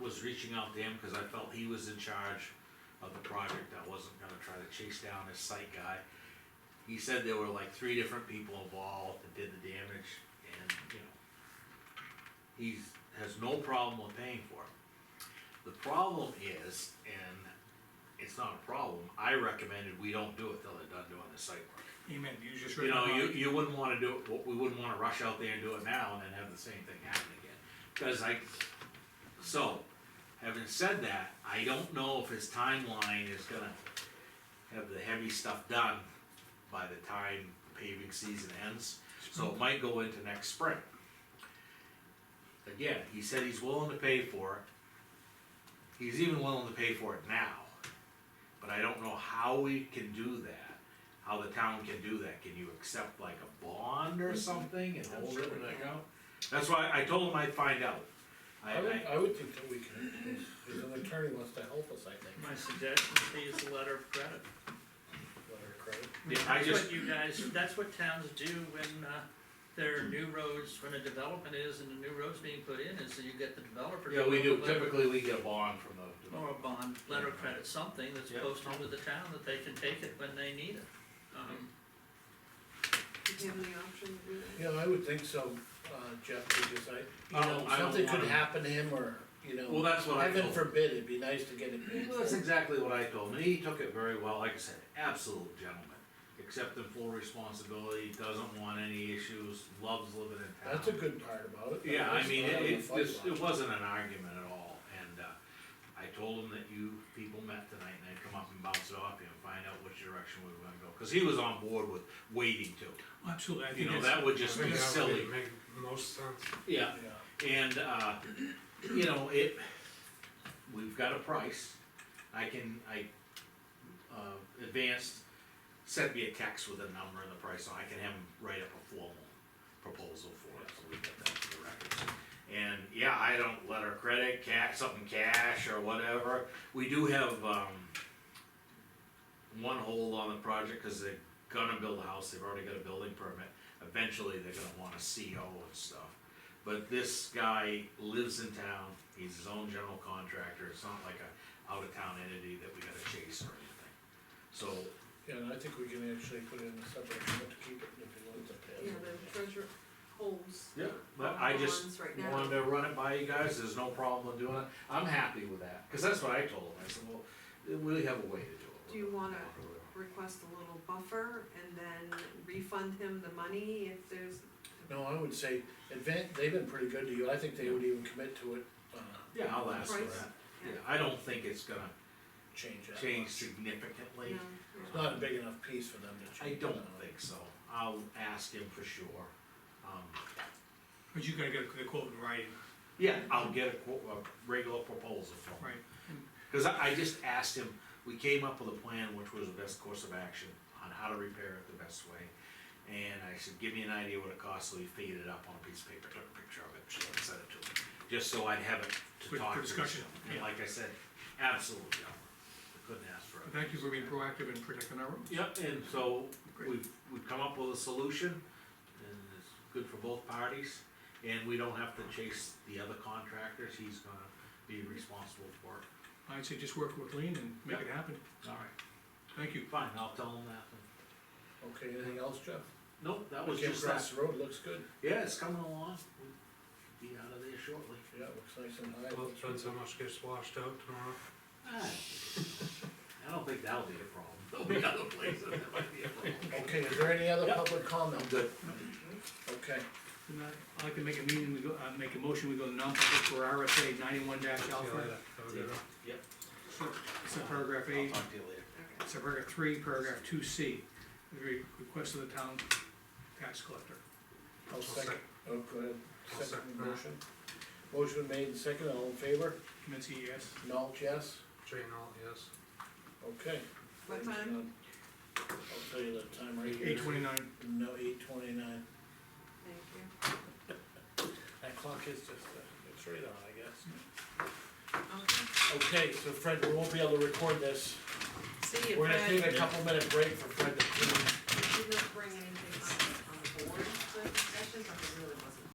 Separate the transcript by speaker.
Speaker 1: was reaching out to him, cause I felt he was in charge of the project, I wasn't gonna try to chase down his site guy. He said there were like three different people involved that did the damage, and, you know, he's, has no problem with paying for it. The problem is, and it's not a problem, I recommended we don't do it till they're done doing the site work.
Speaker 2: Amen, you just
Speaker 1: You
Speaker 2: read
Speaker 1: know,
Speaker 2: my
Speaker 1: you,
Speaker 2: mind.
Speaker 1: you wouldn't wanna do it, w- we wouldn't wanna rush out there and do it now and then have the same thing happen again. Cause I, so, having said that, I don't know if his timeline is gonna have the heavy stuff done by the time paving season ends. So it might go into next spring. Again, he said he's willing to pay for it. He's even willing to pay for it now. But I don't know how we can do that, how the town can do that. Can you accept like a bond
Speaker 3: Mm-hmm.
Speaker 1: or something and hold it in an account? That's why I told him I'd find out. I,
Speaker 3: I would,
Speaker 1: I,
Speaker 3: I would think that we can, if an attorney wants to help us, I think,
Speaker 4: My suggestion would be is a letter of credit.
Speaker 3: let her credit.
Speaker 1: yeah, I
Speaker 4: That's
Speaker 1: just,
Speaker 4: what you guys, that's what towns do when, uh, there are new roads, when a development is and a new road's being put in, is that you get the developer. to
Speaker 1: yeah, we
Speaker 4: go
Speaker 1: do,
Speaker 4: with a letter-
Speaker 1: typically we get a bond from the
Speaker 4: Or a bond, letter of credit, something that's
Speaker 1: Yeah.
Speaker 4: posted to the town that they can take it when they need it. Um,
Speaker 5: Do you have any option to do that?
Speaker 3: Yeah, I would think so, uh, Jeff, because I,
Speaker 1: I
Speaker 3: you
Speaker 1: don't-
Speaker 3: know,
Speaker 1: I don't
Speaker 3: something
Speaker 1: want
Speaker 3: could
Speaker 1: him-
Speaker 3: happen to him or, you
Speaker 1: Well,
Speaker 3: know,
Speaker 1: that's what I told
Speaker 3: heaven forbid, it'd be nice to get it paid
Speaker 1: Well, that's
Speaker 3: for.
Speaker 1: exactly what I told him, and he took it very well, like I said, absolute gentleman, accepting full responsibility, doesn't want any issues, loves living in town.
Speaker 3: That's a good part about it.
Speaker 1: Yeah, I mean,
Speaker 3: It's not
Speaker 1: it,
Speaker 3: a
Speaker 1: it,
Speaker 3: fight
Speaker 1: this-
Speaker 3: lot.
Speaker 1: it wasn't an argument at all, and, uh, I told him that you people met tonight, and I'd come up and bounce it off you and find out which direction we were gonna go, cause he was on board with waiting to,
Speaker 2: Absolutely, I
Speaker 1: you
Speaker 2: think
Speaker 1: know,
Speaker 2: that's,
Speaker 1: that would just
Speaker 6: I
Speaker 1: be
Speaker 6: think that
Speaker 1: silly.
Speaker 6: would Make most sense.
Speaker 1: Yeah,
Speaker 3: Yeah.
Speaker 1: And, uh, you know, it, we've got a price, I can, I, uh, advanced, sent me a text with a number and the price, so I can have him write up a formal proposal for it, so we get that for the records. And, yeah, I don't let her credit, cash, something cash or whatever, we do have, um, one hold on the project, cause they're gonna build a house, they've already got a building permit, eventually they're gonna want a CO and stuff. But this guy lives in town, he's his own general contractor, it's not like a out-of-town entity that we gotta chase or anything. So,
Speaker 3: Yeah, and I think we can actually put it in a separate account to keep it if he wants to pay.
Speaker 5: Yeah, the treasure holds.
Speaker 1: yeah, but I just
Speaker 5: bonds right now.
Speaker 1: wanted to run it by you guys, there's no problem with doing it, I'm happy with that, cause that's what I told him, I said, well, we really have a way to do it.
Speaker 5: Do you wanna- Request a little buffer and then refund him the money if there's,
Speaker 3: No, I would say, advan, they've been pretty good to you, I think they would even commit to it, uh,
Speaker 1: Yeah, I'll ask for
Speaker 5: Price?
Speaker 1: that, yeah, I don't think it's gonna
Speaker 3: change that.
Speaker 1: change
Speaker 3: much.
Speaker 5: no,
Speaker 1: significantly.
Speaker 3: It's Not a big enough piece for them to
Speaker 1: I
Speaker 3: change.
Speaker 1: don't think so, I'll ask him for sure. Um,
Speaker 2: but you gotta get the quote in writing,
Speaker 1: Yeah, I'll get a, qu- a regular proposal from him.
Speaker 2: right?
Speaker 1: Cause I, I just asked him, we came up with a plan, which was the best course of action on how to repair it the best way. And I said, give me an idea what it costs, so he figured it up on a piece of paper, took a picture of it, and sent it to him, just so I'd have it to
Speaker 2: For-
Speaker 1: talk
Speaker 2: for
Speaker 1: to.
Speaker 2: discussion,
Speaker 1: And
Speaker 2: yeah.
Speaker 1: like I said, absolutely, I couldn't ask for
Speaker 2: But
Speaker 1: it.
Speaker 2: Thank you for being proactive in protecting our roads.
Speaker 1: Yep, and so
Speaker 2: Great.
Speaker 1: we've, we've come up with a solution, and it's good for both parties, and we don't have to chase the other contractors, he's gonna be responsible for it.
Speaker 2: I'd say just work with Lean and make it happen,
Speaker 1: All right.
Speaker 2: thank you.
Speaker 1: Fine, I'll tell him that.
Speaker 3: Okay, anything else, Jeff?
Speaker 1: Nope, that was
Speaker 3: Okay,
Speaker 1: just
Speaker 3: across
Speaker 1: that.
Speaker 3: the road, looks good,
Speaker 1: Yeah, it's coming along. We'll Be out of there shortly.
Speaker 3: yeah, it looks nice and high.
Speaker 6: Well, it depends how much gets washed out tomorrow.
Speaker 1: Ah, I don't think that'll be a problem. There'll be other places that might be a problem.
Speaker 3: Okay, is there any other
Speaker 1: Yep.
Speaker 3: public comment?
Speaker 1: I'm good.
Speaker 3: Okay,
Speaker 2: And I- I'd like to make a meeting, we go, uh, make a motion, we go to non-public for RSA ninety-one dash
Speaker 6: See you
Speaker 2: alpha.
Speaker 6: later. Have a good one.
Speaker 1: Yep,
Speaker 2: Subparagraph
Speaker 1: I'll
Speaker 2: A,
Speaker 1: talk to you later.
Speaker 5: okay.
Speaker 2: subparagraph three, paragraph two C, the re- request of the town tax collector.
Speaker 3: I'll second, oh, go ahead,
Speaker 6: I'll
Speaker 3: second
Speaker 6: second
Speaker 3: the
Speaker 6: that.
Speaker 3: motion. Motion made and second, all in favor?
Speaker 2: Kaminsky, yes?
Speaker 3: Malt, yes?
Speaker 6: Jane, all, yes.
Speaker 3: Okay.
Speaker 5: What time?
Speaker 3: I'll tell you the time right here.
Speaker 2: Eight twenty-nine.
Speaker 3: No, eight twenty-nine.
Speaker 5: Thank you.
Speaker 3: That clock is just, uh, it's right on, I guess.
Speaker 5: Okay,
Speaker 3: Okay, so Fred, we won't be able to record this.
Speaker 5: see you,
Speaker 3: We're gonna take
Speaker 5: Fred.
Speaker 3: a couple minute break for Fred to clean.
Speaker 5: She didn't bring anything.